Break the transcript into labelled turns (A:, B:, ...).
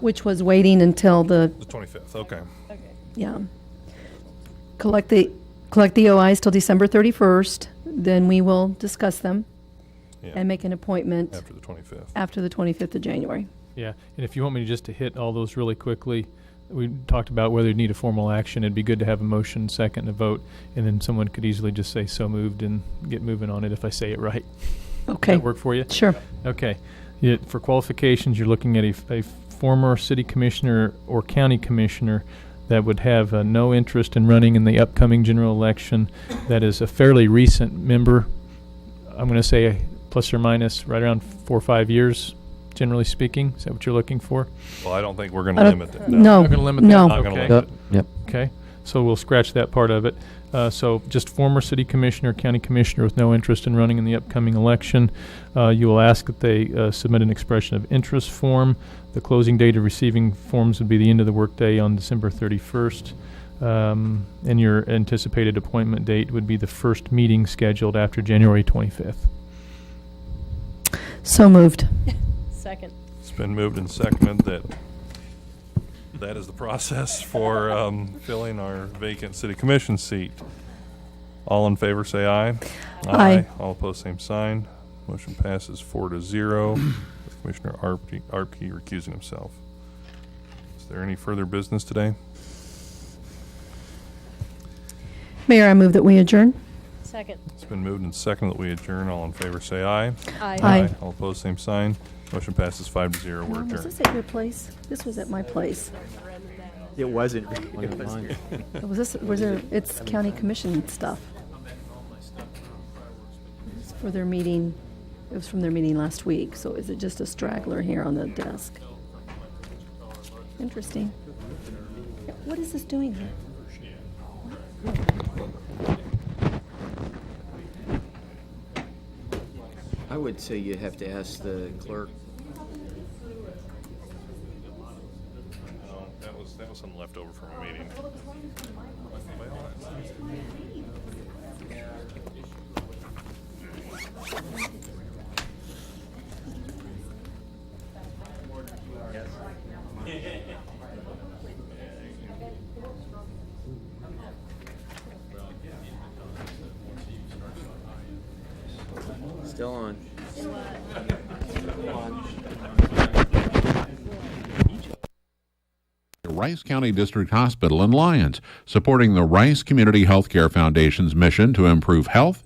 A: which was waiting until the,
B: The 25th, okay.
A: yeah. Collect the, collect the OIs till December 31st, then we will discuss them
B: Yeah,
A: and make an appointment
B: After the 25th.
A: after the 25th of January.
C: Yeah, and if you want me to just to hit all those really quickly, we talked about whether you need a formal action. It'd be good to have a motion, second, and a vote, and then someone could easily just say so moved and get moving on it if I say it right.
A: Okay,
C: That work for you?
A: sure.
C: Okay. Yeah, for qualifications, you're looking at a, f- a former city commissioner or county commissioner that would have uh, no interest in running in the upcoming general election. That is a fairly recent member. I'm going to say plus or minus right around four or five years, generally speaking. Is that what you're looking for?
B: Well, I don't think we're
A: I
B: gonna
A: don't-
B: limit that.
A: No,
C: Not gonna limit that?
A: no.
B: Not gonna
C: Okay.
B: limit
D: Yep,
B: it.
D: yep.
C: Okay, so we'll scratch that part of it. Uh, so just former city commissioner, county commissioner with no interest in running in the upcoming election. Uh, you will ask that they uh, submit an expression of interest form. The closing date of receiving forms would be the end of the workday on December 31st. Um, and your anticipated appointment date would be the first meeting scheduled after January 25th.
A: So moved.
E: Second.
B: It's been moved and seconded that that is the process for um, filling our vacant city commission seat. All in favor, say aye.
A: Aye.
B: All opposed, same sign. Motion passes four to zero. with Commissioner Arpke Arpke recusing himself. Is there any further business today?
A: Mayor, I move that we adjourn.
E: Second.
B: It's been moved and seconded that we adjourn. All in favor, say aye.
A: Aye.
B: All opposed, same sign. Motion passes five to zero. We're
A: Mom, was
B: adjourned.
A: this at your place? This was at my place.
F: It wasn't.
A: Was this, was there, it's county commission stuff. It's For their meeting, it was from their meeting last week, so is it just a straggler here on the desk? Interesting. Yeah, What is this doing here?
F: I would say you have to ask the clerk.
B: No, That was, that was something left over from a meeting.
F: Still on.
G: the Rice County District Hospital in Lyons, supporting the Rice Community Healthcare Foundation's mission to improve health